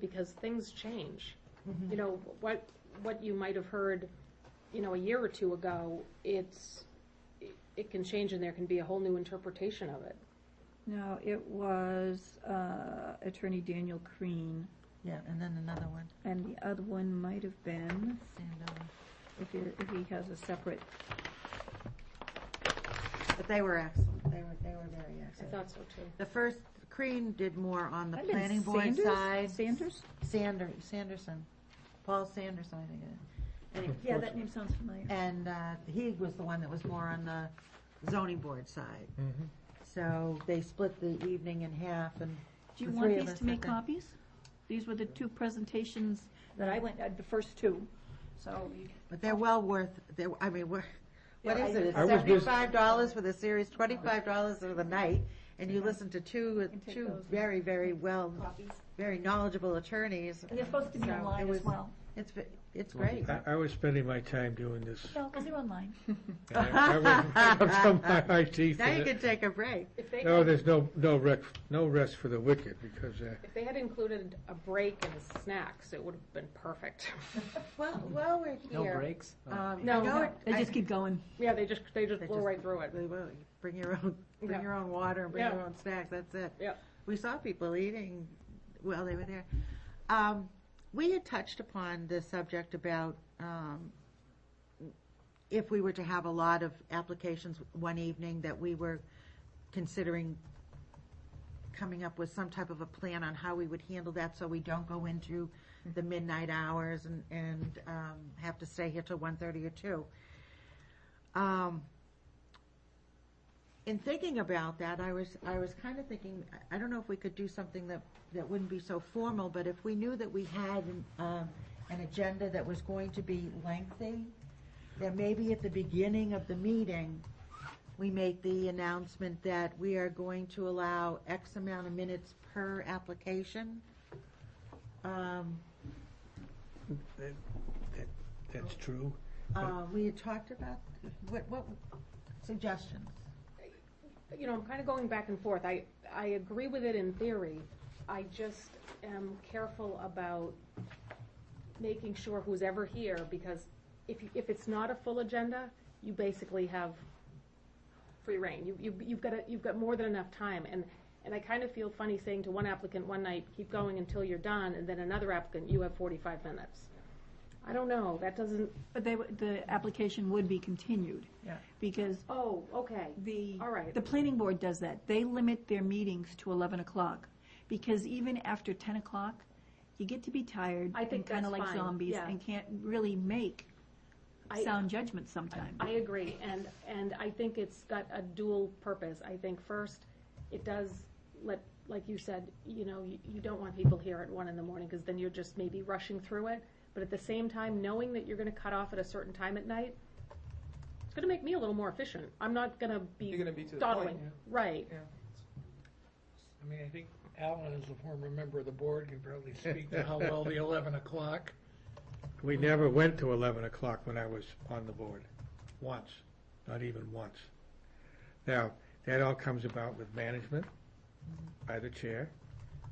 because things change. You know, what, what you might have heard, you know, a year or two ago, it's, it- it can change and there can be a whole new interpretation of it. No, it was uh, Attorney Daniel Crean, Yeah, and then another one, and the other one might have been, Sandoval. if he, if he has a separate, But they were excellent, they were, they were very I excellent. thought so too. The first, Crean did more on the I've been planning board Sanders? side. Sanders? Sander, Sanderson, Paul Sanderson, I think it is. Anyway, Yeah, that name sounds familiar. And, uh, he was the one that was more on the zoning board side. Mm-hmm. So they split the evening in half and Do you the want three of these us to make at the- copies? These were the two presentations that I went, uh, the first two, so. you- But they're well worth, they, I mean, we're, what Yeah, is I- it, it's I was just- seventy-five dollars for the series, twenty-five dollars for the night, and you listen to two, can take two those. very, very well, very knowledgeable attorneys. And they're supposed to be So it online as was- well. It's, ve- it's great. I, I was spending my time doing this. No, because they're online. I I wasn't up to my eye teeth Now in you it. can take a break. If they, No, had- there's no, no rec, no rest for the wicked because, uh, if they had included a break and snacks, it would have been perfect. Well, while we're No here. breaks? um, No, I know no. it- They I- just keep going. Yeah, they just, they just They blow just- right through it. they will. Bring your own, Yeah. bring your own water, and bring your Yeah. own snacks, that's it. Yeah. We saw people eating while they were there. Um, we had touched upon the subject about, um, if we were to have a lot of applications one evening, that we were considering coming up with some type of a plan on how we would handle that, so we don't go into the midnight hours and, and, um, have to stay here till one thirty or two. Um, in thinking about that, I was, I was kind of thinking, I- I don't know if we could do something that, that wouldn't be so formal, but if we knew that we had, an, um, an agenda that was going to be lengthy, then maybe at the beginning of the meeting, we make the announcement that we are going to allow X amount of minutes per application. Um, that, that- that's true. uh, we had talked about, what, what suggestions? you know, I'm kind of going back and forth. I, I agree with it in theory. I just am careful about making sure who's ever here, because if, you- if it's not a full agenda, you basically have free reign. You, you, you've got, a- you've got more than enough time. And, and I kind of feel funny saying to one applicant one night, keep going until you're done, and then another applicant, you have forty-five minutes. I don't know, that doesn't, But they, would- the application would be continued. Yeah. Because oh, okay. The, All right. the planning board does that. They limit their meetings to 11 o'clock, because even after 10 o'clock, you get to be tired. I think Kind of that's like fine, zombies, yeah. and can't really make I- sound judgments sometimes. I agree, and, and I think it's got a dual purpose. I think first, it does let, like you said, you know, you, you don't want people here at one in the morning, because then you're just maybe rushing through it. But at the same time, knowing that you're gonna cut off at a certain time at night, it's gonna make me a little more efficient. I'm not gonna You're be gonna be to the point, dawdling, right? I mean, I think Alan, as a former member of the board, can probably speak to how well the eleven o'clock. We never went to eleven o'clock when I was on the board, once, not even once. Now, that all comes about with management by the chair.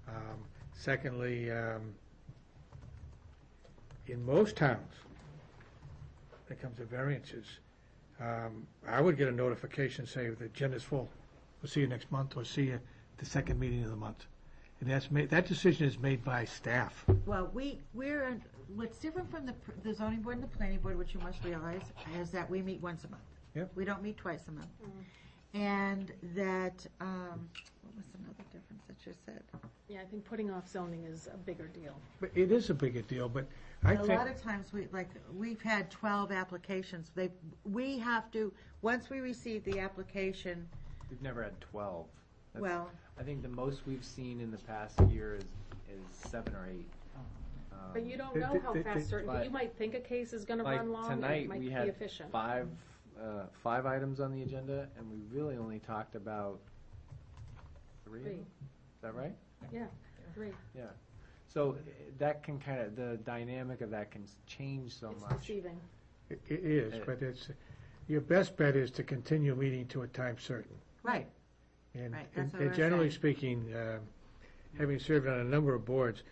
Um, Secondly, um, in most towns, when it comes to variances, um, I would get a notification saying the agenda's full. We'll see you next month, or see you the second meeting of the month. And that's made, that decision is made by staff. Well, we, we're, what's different from the, pr- the zoning board and the planning board, which you must realize, is that we meet once a month. Yep. We don't meet twice a month. And that, um, what was another difference that you said? Yeah, I think putting off zoning is a bigger deal. But it is a bigger deal, but I A think. lot of times, we, like, we've had twelve applications, they, we have to, once we receive the application, We've never had twelve. That's- well, I think the most we've seen in the past year is, is seven or eight. Um, But you don't Th- know th- how th- fast th- certain, But- you might think a case is gonna Like run long, and it tonight, might we be had efficient. five, uh, five items on the agenda, and we really only talked about three of Three. them. Is that right? Yeah, agree. Yeah. So uh, that can kind of, the dynamic of that can s- change so It's much. deceiving. It it is, Uh, but it's, your best bet is to continue meeting to a time certain. right, And Right, that's and- what we and were generally saying. speaking, uh, having served on a number of boards,